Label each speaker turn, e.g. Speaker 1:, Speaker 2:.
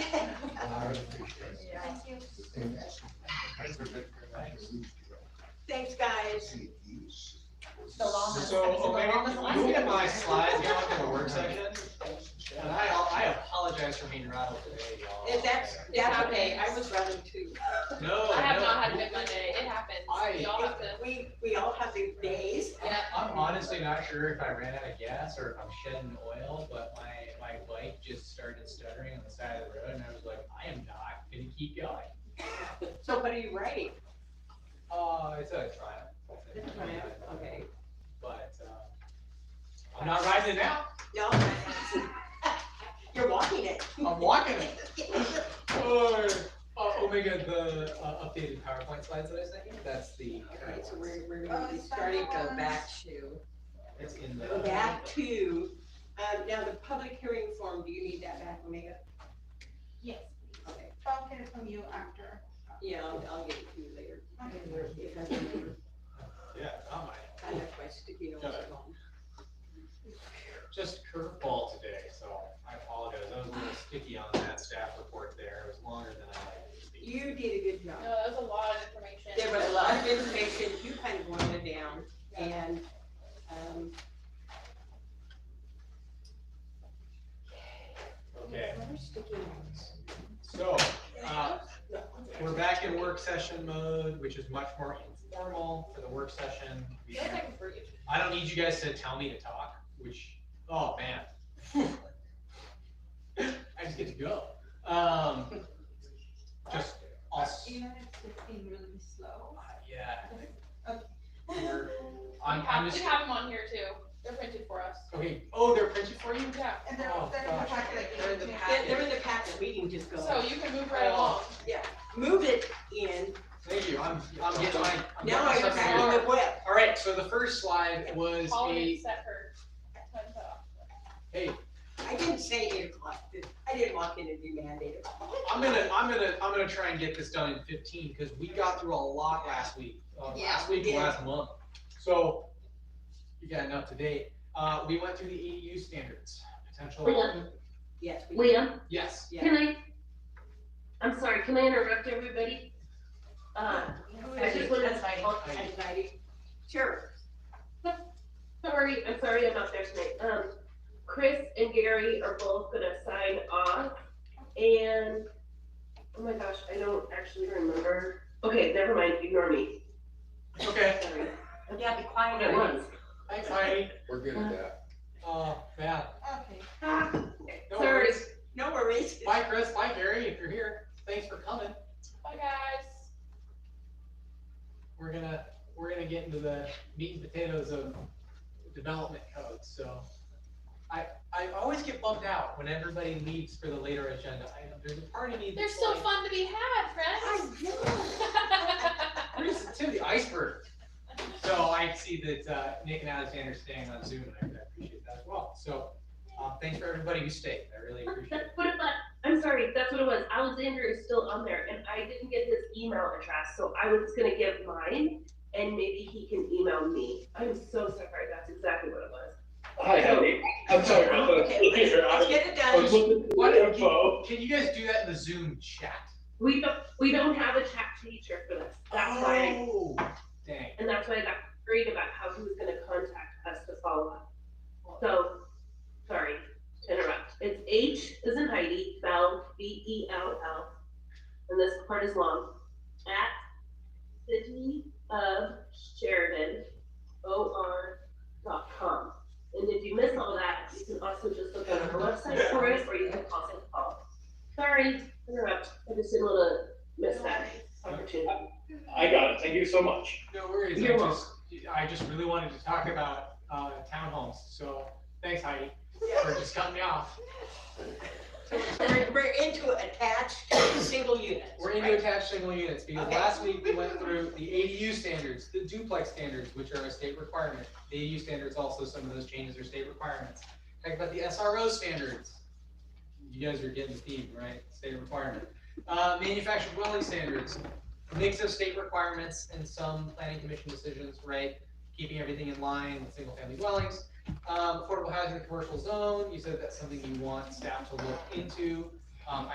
Speaker 1: I appreciate it.
Speaker 2: Thank you.
Speaker 1: And that's- that's a bit-
Speaker 2: Thanks, guys.
Speaker 1: See, these-
Speaker 3: The longest-
Speaker 4: So,
Speaker 3: That's the
Speaker 4: okay,
Speaker 3: longest one.
Speaker 4: moving to my slides, y'all, in the work session, and I, I apologize for being rattled today, y'all.
Speaker 2: If that's, that's okay, I was running too.
Speaker 4: No,
Speaker 3: I have
Speaker 4: no.
Speaker 3: not had a good Monday, it happens,
Speaker 4: I-
Speaker 3: we all have to,
Speaker 2: We, we all have these days.
Speaker 3: yeah,
Speaker 4: I'm honestly not sure if I ran out of gas or if I'm shedding oil, but my, my bike just started stuttering on the side of the road, and I was like, I am not gonna keep going.
Speaker 2: Somebody right.
Speaker 4: Uh, it's a triumph.
Speaker 2: It's a triumph, okay.
Speaker 4: But, uh, I'm not riding it out,
Speaker 2: Y'all. You're walking it.
Speaker 4: I'm walking it. Or, uh, Omega, the, uh, updated PowerPoint slides that I sent you, that's the.
Speaker 2: Alright, so we're, we're gonna be starting to go back to,
Speaker 4: It's in
Speaker 2: go
Speaker 4: the.
Speaker 2: back to, um, now the public hearing form, do you need that back, Omega?
Speaker 5: Yes, please.
Speaker 2: Okay.
Speaker 5: I'll get it from you after.
Speaker 2: Yeah, I'll, I'll get it to you later. If I remember,
Speaker 4: Yeah, oh my,
Speaker 2: I left my sticky notes at home.
Speaker 4: just curveball today, so I apologize, I was a little sticky on that staff report there, it was longer than I like it to be.
Speaker 2: You did a good
Speaker 3: no,
Speaker 2: job.
Speaker 3: that was a lot of information.
Speaker 2: There was a lot of information, you kind of wanted down, and, um,
Speaker 4: Okay, so, uh, we're back in work session mode, which is much more informal for the work session. We
Speaker 3: Feels
Speaker 4: don't-
Speaker 3: like a breach.
Speaker 4: I don't need you guys to tell me to talk, which, oh man. I just get to go. Um, just, I'll, s-
Speaker 5: Even if it's being really slow.
Speaker 4: yeah.
Speaker 5: Okay.
Speaker 4: We're-
Speaker 3: We
Speaker 4: I'm, I'm
Speaker 3: have, we
Speaker 4: just,
Speaker 3: have them on here too, they're printed for us,
Speaker 4: okay, oh, they're printed for you?
Speaker 3: yeah,
Speaker 5: And they're,
Speaker 4: Oh,
Speaker 5: they're in the
Speaker 4: gosh.
Speaker 5: packet I
Speaker 2: they're in
Speaker 5: gave
Speaker 2: the
Speaker 5: you.
Speaker 2: packet, they're in the packet, we can just
Speaker 3: so
Speaker 2: go,
Speaker 3: you can move right along.
Speaker 2: move it in,
Speaker 4: Thank you, I'm, I'm getting my. I'm getting
Speaker 2: now I'm
Speaker 4: my stuff
Speaker 2: back on
Speaker 4: together.
Speaker 2: the web.
Speaker 4: All right, so the first slide was
Speaker 3: Holly
Speaker 4: a,
Speaker 3: had set her time cut off.
Speaker 4: hey,
Speaker 2: I didn't say eight o'clock, I didn't walk in and be mandated.
Speaker 4: I'm gonna, I'm gonna, I'm gonna try and get this done in fifteen, cause we got through a lot last week, uh,
Speaker 2: Yeah,
Speaker 4: last week,
Speaker 2: we
Speaker 4: and
Speaker 2: did.
Speaker 4: last month. So, you got enough today. Uh, we went through the EU standards, potential,
Speaker 6: Liam,
Speaker 2: Yes, we did,
Speaker 6: Liam,
Speaker 4: yes,
Speaker 2: yeah.
Speaker 6: can I, I'm sorry, can I interrupt everybody? Uh,
Speaker 7: Oh,
Speaker 6: I just wanted to,
Speaker 2: Anxiety, sure,
Speaker 6: sorry, I'm sorry I'm not there tonight. Um, Chris and Gary are both gonna sign off and, oh my gosh, I don't actually remember. Okay, never mind, ignore me.
Speaker 4: okay,
Speaker 6: Sorry.
Speaker 7: Yeah, be quiet
Speaker 6: At once.
Speaker 4: thanks Heidi,
Speaker 1: We're good at that.
Speaker 4: uh, yeah,
Speaker 5: Okay.
Speaker 4: no
Speaker 6: Sorry.
Speaker 4: worries.
Speaker 2: no worries.
Speaker 4: Bye Chris, bye Gary, if you're here, thanks for coming.
Speaker 3: Bye, guys.
Speaker 4: We're gonna, we're gonna get into the meat and potatoes of development code, so. I, I always get bummed out when everybody leaves for the later agenda item, there's a part of me
Speaker 3: They're
Speaker 4: that's
Speaker 3: still
Speaker 4: like-
Speaker 3: fun to be had, friends.
Speaker 4: We're just the tip of the iceberg. So I see that uh, Nick and Alexander are staying on Zoom, and I I appreciate that as well. So uh, thanks for everybody who stayed. I really appreciate it.
Speaker 6: That's what it was, I'm sorry, that's what it was. Alexander is still on there and I didn't get his email address, so I was gonna give mine and maybe he can email me. I'm so sorry, that's exactly what it was.
Speaker 8: Hi, Heidi. I'm sorry. I was
Speaker 2: Okay,
Speaker 8: looking
Speaker 2: let's,
Speaker 8: here. I
Speaker 2: let's
Speaker 8: was-
Speaker 2: get it
Speaker 8: I was
Speaker 2: done,
Speaker 8: looking for
Speaker 4: Why
Speaker 8: the
Speaker 4: don't you-
Speaker 8: info.
Speaker 4: Can you guys do that in the Zoom chat?
Speaker 6: We don't, we don't have a chat feature for this. That's why,
Speaker 4: Oh, dang.
Speaker 6: and that's why I got worried about how he was gonna contact us to follow up. So, sorry to interrupt. It's H is in Heidi, Bell, B E L L. And this part is long. At Sydney of Sheridan, O R dot com. And if you miss all that, you can also just look on our website for it, or you can call us and call. Sorry, interrupt. I just didn't wanna miss that opportunity.
Speaker 8: I got it. Thank you so much.
Speaker 4: No worries. I
Speaker 6: You're
Speaker 4: just, I just really wanted to talk about uh, townhomes. So thanks, Heidi, for just cutting me off.
Speaker 2: we're, we're into attached single units,
Speaker 4: We're into attached single units, because
Speaker 2: Okay.
Speaker 4: last week we went through the ADU standards, the duplex standards, which are a state requirement. The ADU standards also, some of those changes are state requirements. Talk about the SRO standards. You guys are getting the theme, right? State requirement. Uh, manufactured dwelling standards, mix of state requirements and some planning commission decisions, right? Keeping everything in line with single-family dwellings. Um, affordable housing, in the commercial zone, you said that's something you want staff to look into. Um,